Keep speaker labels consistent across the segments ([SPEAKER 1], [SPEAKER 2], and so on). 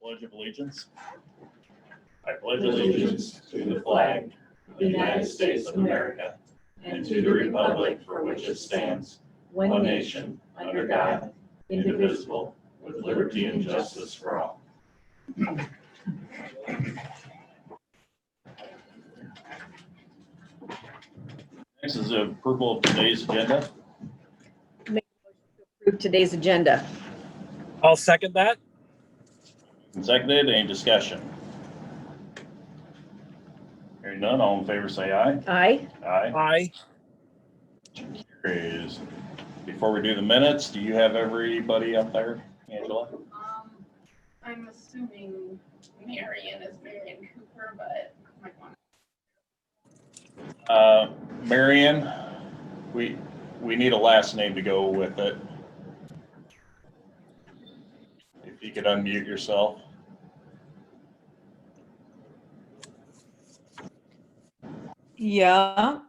[SPEAKER 1] Pledge of Allegiance. I pledge allegiance to the flag of the United States of America and to the republic for which it stands, one nation, under God, indivisible, with liberty and justice for all. Next is the approval of today's agenda.
[SPEAKER 2] Approve today's agenda.
[SPEAKER 3] I'll second that.
[SPEAKER 1] Seconded, any discussion? Hearing none, all in favor say aye.
[SPEAKER 2] Aye.
[SPEAKER 1] Aye.
[SPEAKER 3] Aye.
[SPEAKER 1] Carries. Before we do the minutes, do you have everybody up there, Angela?
[SPEAKER 4] Um, I'm assuming Marion is Marion Cooper, but oh I might want
[SPEAKER 1] Uh, Marion, we, we need a last name to go with it. If you could unmute yourself.
[SPEAKER 5] Yeah.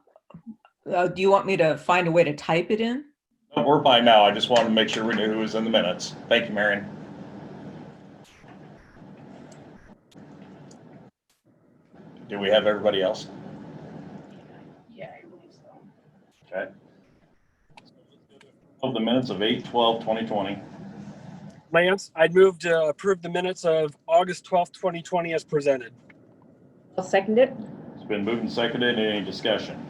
[SPEAKER 5] Uh, do you want me to find a way to type it in?
[SPEAKER 1] Oh, We're by now, I just wanted to make sure we knew who was in the minutes. Thank you, Marion. Do we have everybody else?
[SPEAKER 4] yeah, I believe so.
[SPEAKER 1] Okay. Of the minutes of eight twelve twenty twenty.
[SPEAKER 3] Lance, I'd move to approve the minutes of August 12th, 2020 as presented.
[SPEAKER 2] I'll second it.
[SPEAKER 1] It's been moved and seconded. Any discussion?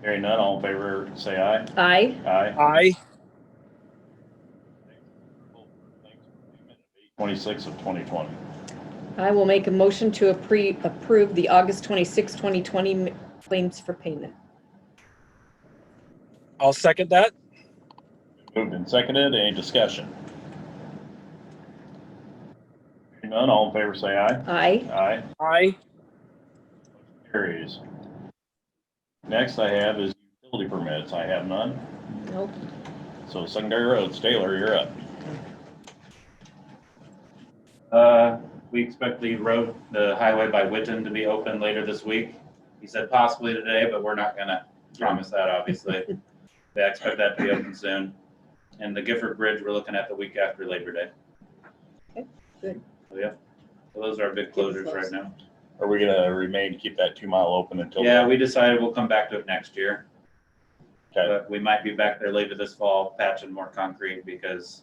[SPEAKER 1] Hearing none, all in favor, say aye.
[SPEAKER 2] Aye.
[SPEAKER 1] Aye.
[SPEAKER 3] Aye.
[SPEAKER 1] 26 of 2020.
[SPEAKER 2] I will make a motion to appre- approve the August 26, 2020 m- claims for payment.
[SPEAKER 3] I'll second that.
[SPEAKER 1] Moved and seconded. Any discussion? Hearing none, all in favor, say aye.
[SPEAKER 2] Aye.
[SPEAKER 1] Aye.
[SPEAKER 3] Aye.
[SPEAKER 1] Carries. Next I have is utility permits. I have none.
[SPEAKER 2] Nope.
[SPEAKER 1] So secondary roads, Taylor, you're up. Uh,
[SPEAKER 6] We expect the road, the highway by Witten to be open later this week. He said possibly today, but we're not gonna promise that, obviously. They expect that to be open soon. And the Gifford Bridge, we're looking at the week after Labor Day.
[SPEAKER 2] Okay, good.
[SPEAKER 6] So, Yeah, So those are our big closures right now.
[SPEAKER 1] are we gonna remain, keep that two mile open until?
[SPEAKER 6] Yeah, we decided we'll come back to it next year.
[SPEAKER 1] Okay,
[SPEAKER 6] But we might be back there later this fall patching more concrete because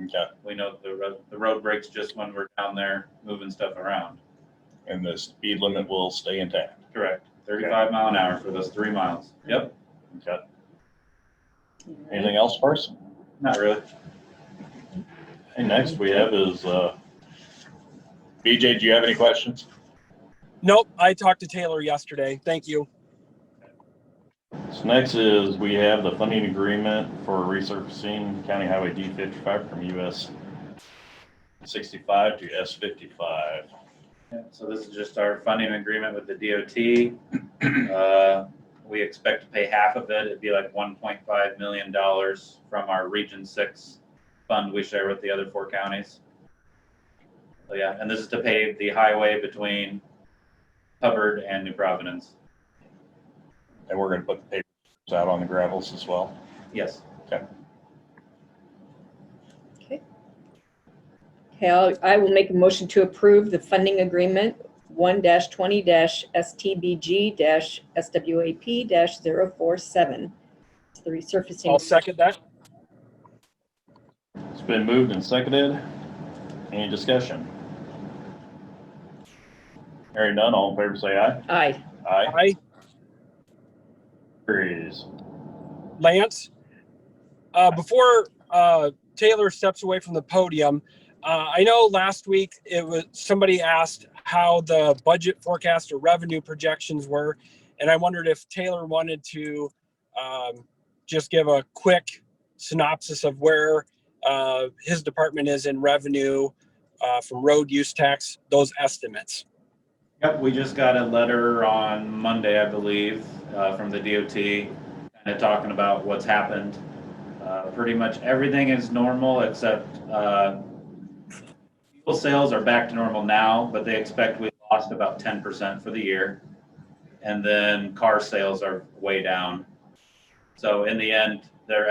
[SPEAKER 1] okay.
[SPEAKER 6] we know the road, the road breaks just when we're down there moving stuff around.
[SPEAKER 1] And the speed limit will stay intact.
[SPEAKER 6] Correct. Thirty-five mile an hour for those three miles. Yep.
[SPEAKER 1] Okay. Anything else first?
[SPEAKER 6] Not really.
[SPEAKER 1] And next we have is, uh, BJ, do you have any questions?
[SPEAKER 3] Nope. I talked to Taylor yesterday. Thank you.
[SPEAKER 1] So next is we have the funding agreement for resurfacing County Highway D fifty-five from US sixty-five to S fifty-five.
[SPEAKER 6] Yeah, So this is just our funding agreement with the DOT. Uh, We expect to pay half of it. It'd be like one point five million dollars from our Region Six fund we share with the other four counties. So yeah, and this is to pave the highway between Hubbard and New Providence.
[SPEAKER 1] And we're gonna put the papers out on the gravels as well.
[SPEAKER 6] Yes.
[SPEAKER 2] Okay, I'll- I will make a motion to approve the funding agreement 1-20-STBG-SWAP-047. It's the
[SPEAKER 3] I'll
[SPEAKER 2] resurfacing.
[SPEAKER 3] second that.
[SPEAKER 1] It's been moved and seconded. Any discussion? Hearing none, all in favor say aye.
[SPEAKER 2] Aye.
[SPEAKER 1] Aye.
[SPEAKER 3] Aye.
[SPEAKER 1] Carries.
[SPEAKER 3] Lance, uh, before uh, Taylor steps away from the podium, uh, I know last week it was somebody asked how the budget forecast or revenue projections were, and I wondered if Taylor wanted to um, just give a quick synopsis of where uh, his department is in revenue uh, from road use tax, those estimates.
[SPEAKER 6] Yep, we just got a letter on Monday, I believe, uh, from the DOT, kind of talking about what's happened. Uh, Pretty much everything is normal except uh, fuel sales are back to normal now, but they expect we lost about ten percent for the year. And then car sales are way down. So in the end, their